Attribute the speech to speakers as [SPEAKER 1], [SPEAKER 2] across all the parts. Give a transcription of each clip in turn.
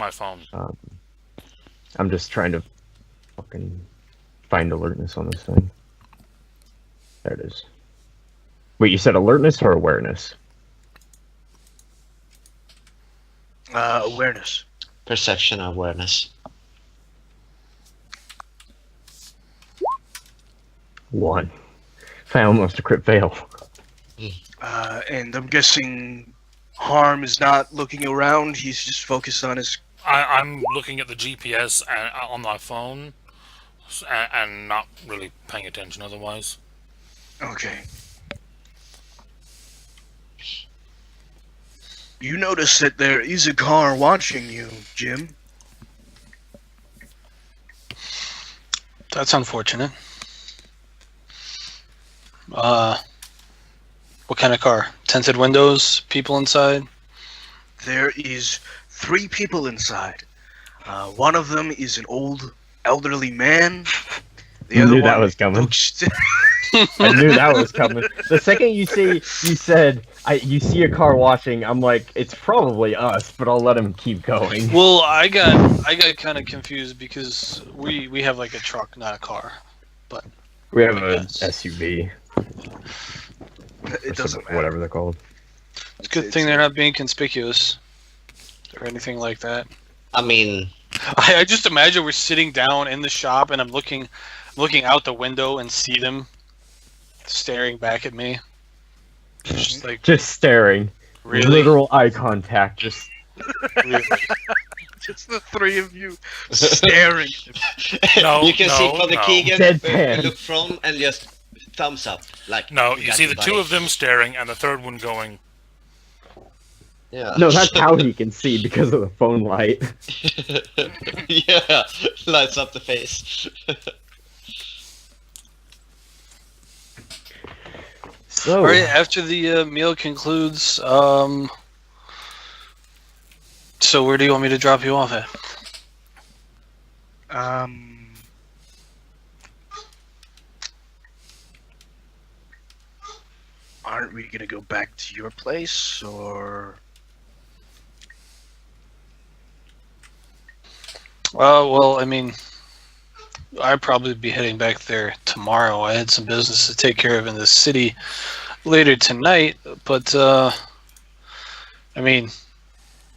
[SPEAKER 1] my phone.
[SPEAKER 2] Um, I'm just trying to fucking find alertness on this thing. There it is. Wait, you said alertness or awareness?
[SPEAKER 3] Uh, awareness.
[SPEAKER 4] Perception awareness.
[SPEAKER 2] One. I almost a crit fail.
[SPEAKER 3] Uh, and I'm guessing Harm is not looking around. He's just focused on his.
[SPEAKER 1] I, I'm looking at the GPS and, uh, on my phone s- and, and not really paying attention otherwise.
[SPEAKER 3] Okay. You notice that there is a car watching you, Jim.
[SPEAKER 5] That's unfortunate. Uh, what kind of car? Tinted windows, people inside.
[SPEAKER 3] There is three people inside. Uh, one of them is an old, elderly man. The
[SPEAKER 2] I
[SPEAKER 3] other
[SPEAKER 2] knew that
[SPEAKER 3] one
[SPEAKER 2] was coming.
[SPEAKER 3] looks-
[SPEAKER 2] I knew that was coming. The second you see, you said, I, you see a car washing, I'm like, it's probably us, but I'll let him keep going.
[SPEAKER 5] Well, I got I got kind of confused because we we have like a truck, not a car.
[SPEAKER 2] We have a
[SPEAKER 5] Yes.
[SPEAKER 2] SUV. or
[SPEAKER 3] it doesn't
[SPEAKER 2] sub-
[SPEAKER 3] matter.
[SPEAKER 2] Whatever they're called.
[SPEAKER 5] It's a good thing they're not being conspicuous or anything like that.
[SPEAKER 4] I mean,
[SPEAKER 5] I, I just imagine we're sitting down in the shop and I'm looking looking out the window and see them staring back at me. Just like
[SPEAKER 2] Just staring.
[SPEAKER 5] really,
[SPEAKER 2] Literal eye contact. Just
[SPEAKER 5] really.
[SPEAKER 3] Just the three of you staring.
[SPEAKER 1] No,
[SPEAKER 4] you can
[SPEAKER 1] no,
[SPEAKER 4] see Father
[SPEAKER 1] no.
[SPEAKER 4] Keegan where
[SPEAKER 2] Deadpan.
[SPEAKER 4] you look from and just thumbs up. Like
[SPEAKER 1] No,
[SPEAKER 4] "We
[SPEAKER 1] you
[SPEAKER 4] got
[SPEAKER 1] see the two
[SPEAKER 4] buddy."
[SPEAKER 1] of them staring and the third one going,
[SPEAKER 4] Yeah.
[SPEAKER 2] No, that's how he can see because of the phone light.
[SPEAKER 4] yeah, lights up the face.
[SPEAKER 2] So
[SPEAKER 5] All right, after the uh, meal concludes, um, so where do you want me to drop you off at?
[SPEAKER 3] Um, aren't we gonna go back to your place, or
[SPEAKER 5] Uh, well, I mean, I'd probably be heading back there tomorrow. I had some business to take care of in the city later tonight, but uh, I mean,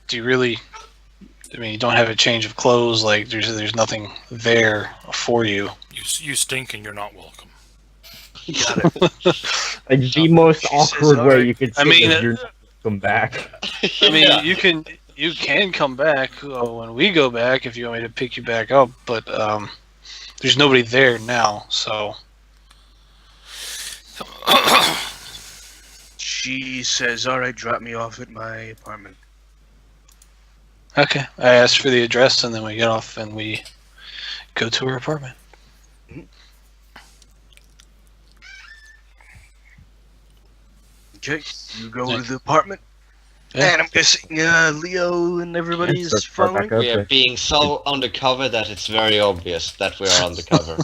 [SPEAKER 5] do you really? I mean, you don't have a change of clothes. Like, there's there's nothing there for you.
[SPEAKER 1] you, s- you stink and you're not welcome.
[SPEAKER 2] like the most
[SPEAKER 3] Jesus,
[SPEAKER 2] awkward
[SPEAKER 3] all
[SPEAKER 2] way
[SPEAKER 3] right.
[SPEAKER 2] you could say
[SPEAKER 5] I mean,
[SPEAKER 2] is you're come back.
[SPEAKER 5] I mean,
[SPEAKER 4] Yeah.
[SPEAKER 5] you can you can come back uh, when we go back if you want me to pick you back up, but um, there's nobody there now, so
[SPEAKER 3] she says, "All right, drop me off at my apartment."
[SPEAKER 5] okay. I asked for the address, and then we get off and we go to her apartment.
[SPEAKER 3] Okay, you go
[SPEAKER 5] Yeah.
[SPEAKER 3] to the apartment,
[SPEAKER 5] Yeah.
[SPEAKER 3] and I'm guessing uh, Leo and everybody
[SPEAKER 2] And
[SPEAKER 3] is
[SPEAKER 2] search for
[SPEAKER 3] following.
[SPEAKER 2] backup.
[SPEAKER 4] We are being so undercover that it's very obvious that we are undercover.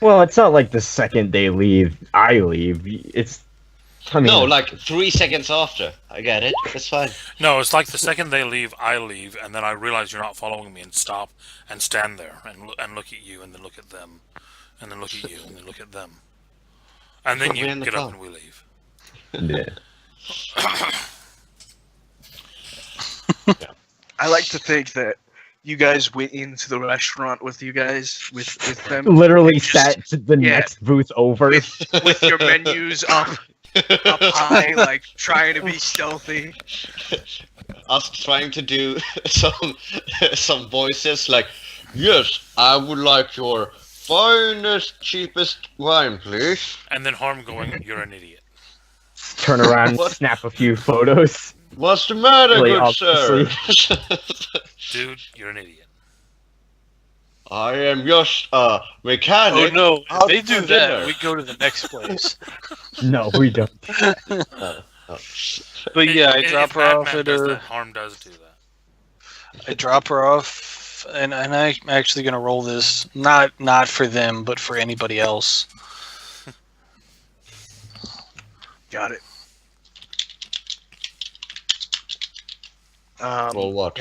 [SPEAKER 2] Well, it's not like the second they leave, I leave. It's I mean,
[SPEAKER 4] no, like three seconds after. I get it. It's fine.
[SPEAKER 1] No, it's like the second they leave, I leave, and then I realize you're not following me and stop and stand there and, lo- and look at you and then look at them and then look at you and then look at them. And then
[SPEAKER 4] But
[SPEAKER 1] you
[SPEAKER 4] we're in the
[SPEAKER 1] get up
[SPEAKER 4] car.
[SPEAKER 1] and we leave.
[SPEAKER 2] yeah.
[SPEAKER 3] I like to think that you guys went into the restaurant with you guys with with them
[SPEAKER 2] literally
[SPEAKER 3] Just-
[SPEAKER 2] sat to the
[SPEAKER 3] yeah.
[SPEAKER 2] next booth over.
[SPEAKER 3] With- with your menus up up high, like trying to be stealthy.
[SPEAKER 4] Us trying to do some some voices like, yes, I would like your finest, cheapest wine, please.
[SPEAKER 1] And then Harm going, you're an idiot.
[SPEAKER 2] turn around,
[SPEAKER 4] What?
[SPEAKER 2] snap a few photos.
[SPEAKER 4] What's the matter,
[SPEAKER 2] Really
[SPEAKER 4] good sir?
[SPEAKER 1] Dude, you're an idiot.
[SPEAKER 4] I am just a mechanic.
[SPEAKER 5] Oh no! If
[SPEAKER 4] Out
[SPEAKER 5] they
[SPEAKER 4] for
[SPEAKER 5] do that,
[SPEAKER 4] dinner.
[SPEAKER 5] we go to the next place.
[SPEAKER 2] No, we don't.
[SPEAKER 5] But
[SPEAKER 1] If-
[SPEAKER 5] yeah, I
[SPEAKER 1] if-
[SPEAKER 5] drop
[SPEAKER 1] if
[SPEAKER 5] her
[SPEAKER 1] Mad
[SPEAKER 5] off
[SPEAKER 1] Man
[SPEAKER 5] at
[SPEAKER 1] does
[SPEAKER 5] her.
[SPEAKER 1] that, Harm does do that.
[SPEAKER 5] I drop her off, and and I'm actually gonna roll this not not for them, but for anybody else.
[SPEAKER 3] Got it. Um, Um,
[SPEAKER 4] Well, what?